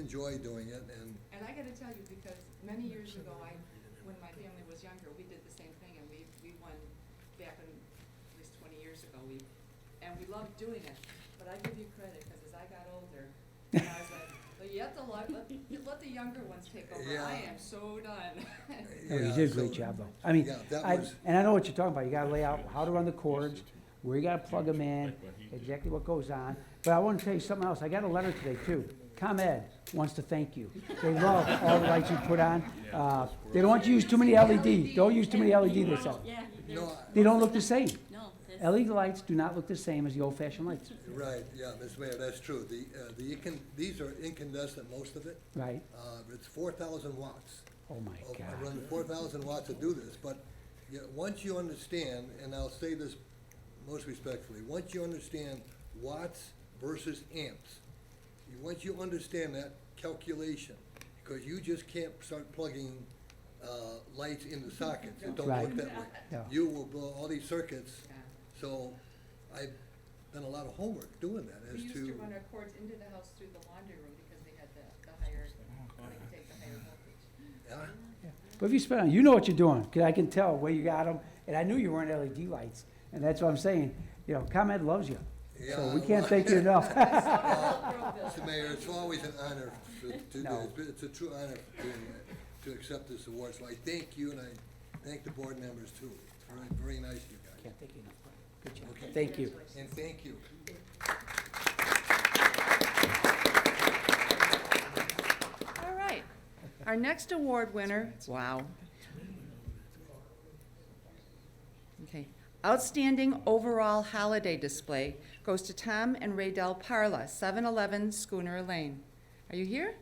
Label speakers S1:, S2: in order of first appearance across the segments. S1: enjoy doing it, and
S2: And I gotta tell you, because many years ago, I, when my family was younger, we did the same thing, and we, we won back in, at least twenty years ago, we, and we loved doing it, but I give you credit, because as I got older, I was like, well, you have to let, let, you let the younger ones take over, I
S1: Yeah.
S2: am so done.
S3: Oh, you
S1: Yeah,
S3: did a
S1: so-
S3: great job, though. I mean,
S1: Yeah, that
S3: I,
S1: was-
S3: and I know what you're talking about. You gotta lay out how to run the cords, where you gotta plug them in,
S4: Like what he did.
S3: exactly what goes on. But I wanna tell you something else. I got a letter today, too. ComEd wants to thank you. They love all the lights you put on. Uh, they don't want you to use too many LED. Don't use too many LED this summer.
S5: Yeah.
S1: no,
S5: there's-
S3: They don't look the same.
S5: No. this-
S3: LED lights do not look the same as the old-fashioned lights,
S1: right, yeah, Mr. Mayor, that's true. The, uh, the incand, these are incandescent, most of it.
S3: right?
S1: Uh, it's four thousand watts.
S3: Oh, my
S1: Oh, I
S3: God.
S1: run four thousand watts to do this, but, you know, once you understand, and I'll say this most respectfully, once you understand watts versus amps, you- once you understand that calculation, because you just can't start plugging, uh, lights into sockets, it don't work
S3: Right.
S1: that way.
S3: Yeah.
S1: You will blow all these circuits,
S2: Yeah.
S1: so I've done a lot of homework doing that
S2: We
S1: as
S2: used
S1: to,
S2: to run our cords into the house through the laundry room, because they had the, the higher, they could take the higher voltage.
S1: yeah,
S3: But if you spend, you know what you're doing, 'cause I can tell where you got them, and I knew you weren't LED lights, and that's what I'm saying. You know, ComEd loves you, so we
S1: Yeah,
S3: can't thank you enough.
S1: Mr. Mayor, it's always an honor to to do
S3: No.
S1: this, but it's a true honor to, to accept this award, so I thank you and I thank the board members too. Very, very nice of you guys,
S3: Can't thank you enough, Brian. Good
S1: Okay.
S3: job. Thank you.
S1: and thank you.
S2: All right. Our next award winner, wow. Okay. Outstanding Overall Holiday Display goes to Tom and Raydell Parla, 711 Schooner Lane. Are you here?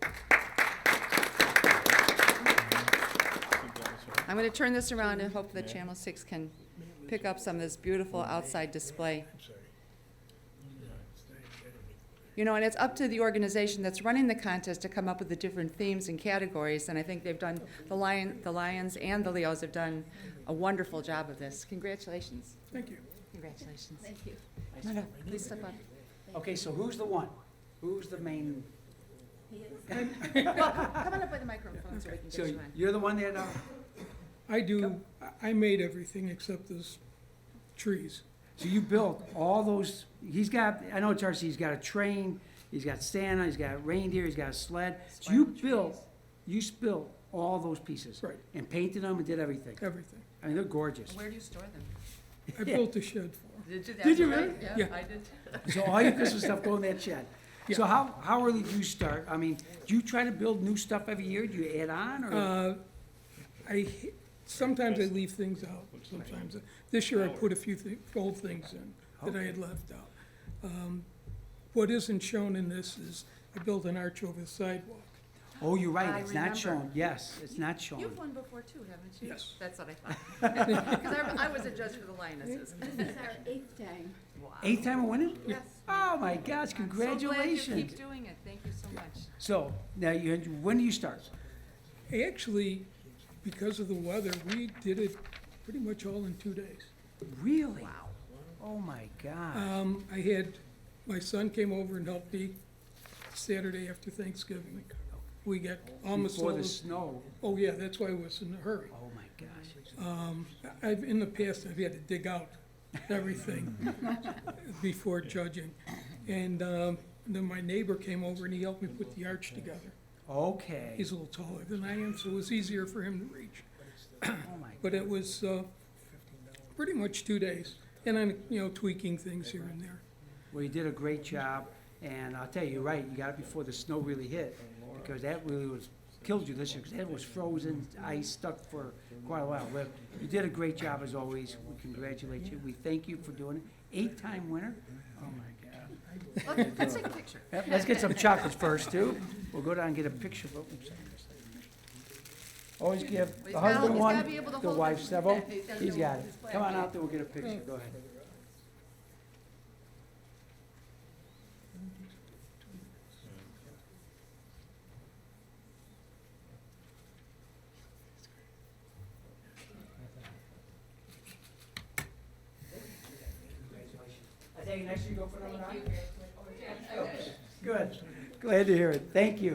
S2: I'm going to turn this around and hope that Channel 6 can pick up some of this beautiful outside display. You know, and it's up to the organization that's running the contest to come up with the different themes and categories, and I think they've done, the Lion, the Lions and the Leos have done a wonderful job of this. Congratulations. Thank you. Congratulations. Thank you. No, no, please step up.
S3: Okay, so who's the one? Who's the main?
S2: Come on up by the microphone so we can
S3: So
S2: get you on.
S3: you're the one that, uh,
S6: I do, I- I made everything except those trees.
S3: so you built all those, he's got, I know it's RC, he's got a train, he's got Santa, he's got reindeer, he's got a sled. So you
S2: Swing
S3: built,
S2: trees.
S3: you built all those pieces.
S6: Right.
S3: And painted them and did everything.
S6: Everything.
S3: I mean, they're gorgeous.
S2: Where do you store them?
S6: I built a shed for 'em.
S2: Did you?
S3: Did you really?
S2: Yeah,
S6: Yeah.
S2: I did.
S3: So all your Christmas stuff go in that shed. So
S6: Yeah.
S3: how, how early do you start? I mean, do you try to build new stuff every year? Do you add on or?
S6: Uh, I, h- sometimes I leave things out, sometimes. I- This year I put a few thi- old things in that I had left out. Um, What isn't shown in this is I built an arch over the sidewalk.
S3: Oh, you're right,
S2: I
S3: it's not
S2: remember.
S3: shown. Yes, it's not shown.
S2: You've won before too, haven't you?
S6: Yes.
S2: That's what I thought. Because I, I was a judge for the Lionesses.
S7: This is our eighth time.
S2: Wow.
S3: Eighth time of winning?
S2: Yes.
S3: Oh my gosh,
S2: So glad you keep
S3: congratulations.
S2: doing it. Thank you so much.
S3: So, now you, when do you start?
S6: Actually, because of the weather, we did it pretty much all in two days.
S3: Really? Wow. Oh my gosh.
S6: Um, I had, my son came over and helped me Saturday after Thanksgiving. We got almost all
S3: Before the
S6: of,
S3: snow,
S6: oh yeah, that's why I was in a hurry.
S3: oh my gosh.
S6: I've, in the past, I've had to dig out everything before judging. And, um, then my neighbor came over and he helped me put the arch together.
S3: Okay,
S6: He's a little taller than I am, so it was easier for him to reach.
S3: oh my,
S6: But it was, uh, pretty much two days. And I'm, you know, tweaking things here and there.
S3: well, you did a great job, and I'll tell you, you're right, you got it before the snow really hit, because that really was, killed you this year, because that was frozen, ice stuck for quite a while. Well, you did a great job as always, we congratulate you, we thank you for doing it. Eight-time winner? Oh my God.
S2: Let's let's take a picture.
S3: Yep, Let's get some chocolates first, too. We'll go down and get a picture. of- oops. Always give
S2: But he's
S3: the
S2: gotta-
S3: husband
S2: he's gotta be able to
S3: one, the
S2: hold
S3: wife
S2: it.
S3: several.
S2: He's gotta be
S3: He's
S2: able to
S3: got
S2: hold
S3: it.
S2: his flag.
S3: Come on out there, we'll get a picture, go ahead. I take it next you go for number nine? Good, Glad to hear it. Thank you.